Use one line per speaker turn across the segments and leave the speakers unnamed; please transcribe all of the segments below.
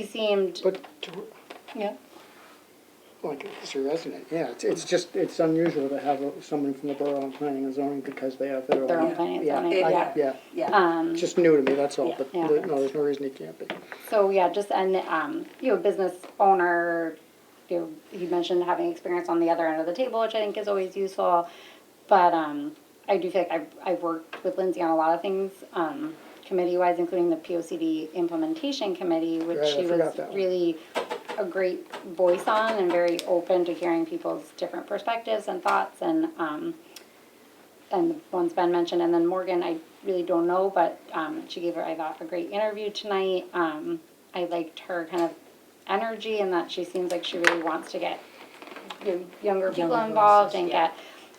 He seemed,
But, to-
yeah,
like, it's a resident, yeah, it's, it's just, it's unusual to have someone from the Borough on Planning and Zoning because they have their own.
Their own planning and
yeah,
zoning,
I-
yeah.
Yeah,
Yeah,
um,
it's just new to me, that's all,
Yeah,
but
yeah.
there- no, there's no reason he can't be.
so yeah, just an, um, you know, business owner, you know, you mentioned having experience on the other end of the table, which I think is always useful. But, um, I do feel like I've, I've worked with Lindsay on a lot of things, um, committee-wise, including the P O C D implementation committee, which
Right, I
she was
forgot that one.
really a great voice on and very open to hearing people's different perspectives and thoughts and, um, and the one's been mentioned, and then Morgan, I really don't know, but um, she gave her, I thought, a great interview tonight. Um, I liked her kind of energy and that she seems like she really wants to get you know, younger people
Younger
involved
voices,
and
yeah.
get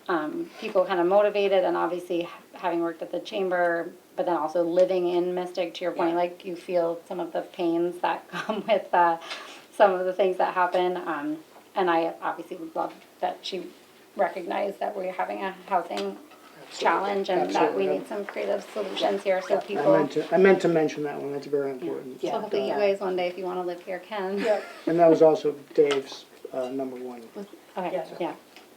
um, people kind of motivated. And obviously, ha- having worked at the chamber, but then also living in Mystic, to your point,
Yeah.
like you feel some of the pains that come with uh, some of the things that happen. Um, and I obviously would love that she recognized that we're having a housing challenge and that we
Absolutely.
need some creative solutions here so
I
people,
meant to, I meant to mention that one, that's very important.
so
Yeah.
hopefully you
Yeah.
guys one day, if you wanna live here, can.
And that was also Dave's, uh, number one.
Okay,
Yeah.
yeah,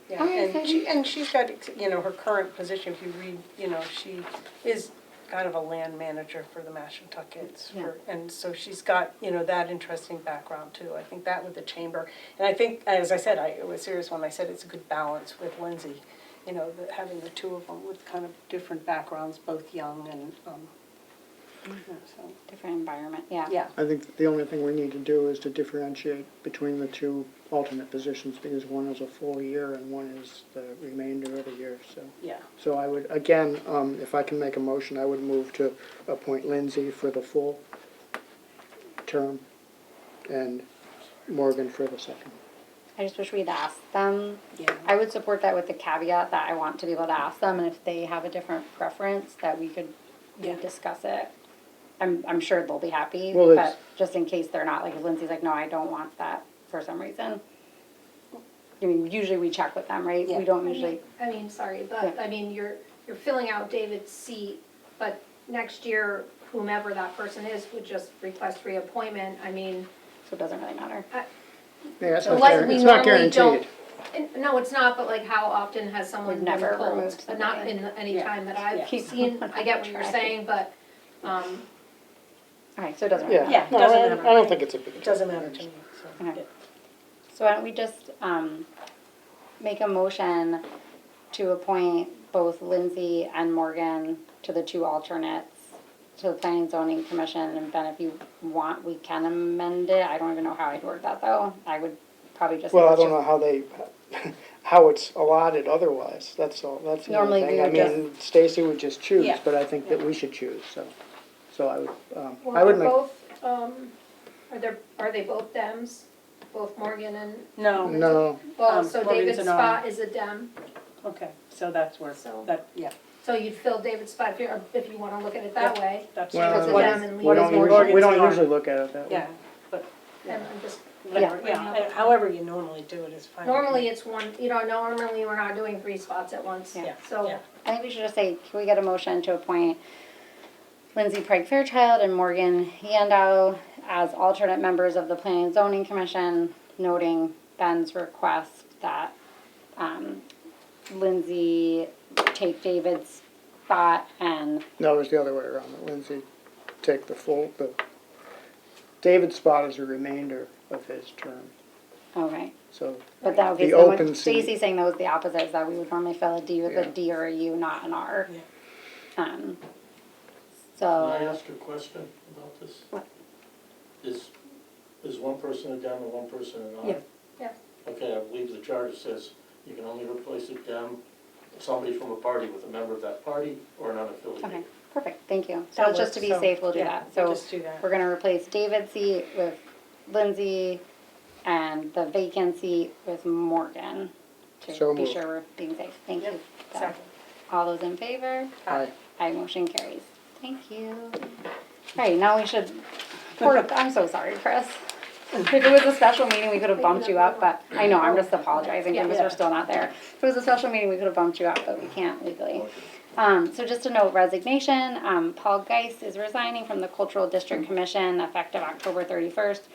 Yeah,
Oh, yeah, so
and she, and she's got, you know, her current position, if you read, you know, she is kind of a land manager for the Mashantuckets.
Yeah.
for- And so she's got, you know, that interesting background too. I think that with the chamber. And I think, as I said, I was serious when I said it's a good balance with Lindsay, you know, the- having the two of them with kind of different backgrounds, both young and, um, you know, so,
different environment, yeah.
yeah.
I think the only thing we need to do is to differentiate between the two alternate positions, because one is a full year and one is the remainder of the year, so.
Yeah.
So I would, again, um, if I can make a motion, I would move to appoint Lindsay for the full term and Morgan for the second.
I just wish we'd asked them.
Yeah.
I would support that with the caveat that I want to be able to ask them, and if they have a different preference, that we could
Yeah.
discuss it. I'm, I'm sure they'll be happy,
Well, it's-
but just in case they're not, like if Lindsay's like, no, I don't want that for some reason. I mean, usually we check with them, right?
Yeah.
We don't usually,
I mean, sorry, but,
Yeah.
I mean, you're, you're filling out David's seat, but next year, whomever that person is would just request reappointment, I mean,
so it doesn't really matter.
Yeah, it's not
like,
guaranteed,
we
it's not
normally don't.
guaranteed.
and- No, it's not, but like, how often has someone
We've
been
never
pulled?
removed
But not
somebody.
in any
Yeah.
time that
Yeah.
I've seen, I get what you're saying, but, um,
Alright, so it doesn't really matter.
Yeah,
it
no,
doesn't
I I
matter.
don't think it's a big deal.
It doesn't matter to me, so.
Okay. So why don't we just um, make a motion to appoint both Lindsay and Morgan to the two alternates to the Planning and Zoning Commission, and Ben, if you want, we can amend it. I don't even know how I'd word that, though. I would probably just.
Well, I don't know how they, how it's allotted otherwise, that's all, that's the
Normally
only
we
thing. I
would
mean, Stacy would just choose,
Yeah.
but I think that we should choose, so, so I would, um, I
well,
would
are
make.
both, um, are there, are they both Dems? Both Morgan and,
No,
No,
well,
Um,
so
Morgan's
David's
an R.
spot is a Dem,
okay, so that's where,
So-
that, yeah,
so you'd fill David's spot if you're, if you wanna look at it that
Yeah.
way.
that's.
well,
a
we
What
Dem
is-
and
what
leave
is
it.
don't usually, we
Morgan's
don't
yard?
usually look at it that way.
Yeah, but,
And I'm just
whatever,
Yeah.
yeah, however you normally do it is fine.
Normally it's one, you know, normally we're not doing three spots at once,
Yeah,
so.
yeah.
I think we should just say, can we get a motion to appoint Lindsay Pike Fairchild and Morgan Yandow as alternate members of the Planning and Zoning Commission, noting Ben's request that um, Lindsay take David's spot and,
No, it was the other way around, that Lindsay take the full, the, David's spot is a remainder of his term,
okay.
so,
But that, okay,
The
so
open
what
seat.
Stacy's saying that was the opposite, is that we would normally fill a D with a
Yeah.
D or a U, not an R.
Yeah.
Um,
Can I
So,
ask a question about this? Is, is one person a Dem and one person an I?
Yeah.
Yeah.
Okay, I believe the charter says you can only replace a Dem, somebody from a party with a member of that party or an
okay,
unaffiliated.
perfect, thank you. So
That
just to
works,
be
so,
safe, we'll do
yeah,
that.
we'll
So
just do that.
We're gonna replace David's seat with Lindsay and the vacant seat with Morgan
So
to be
moved.
sure we're being safe. Thank you.
Yep, second.
All those in favor?
I,
Aye, motion carries. Thank you. Right, now we should, poor- I'm so sorry, Chris. If it was a special meeting, we could have bumped you up, but I know, I'm just apologizing because we're still not there. If it was a special meeting, we could have bumped you up, but we can't legally. Um, so just a note resignation, um, Paul Geis is resigning from the Cultural District Commission effective October thirty-first.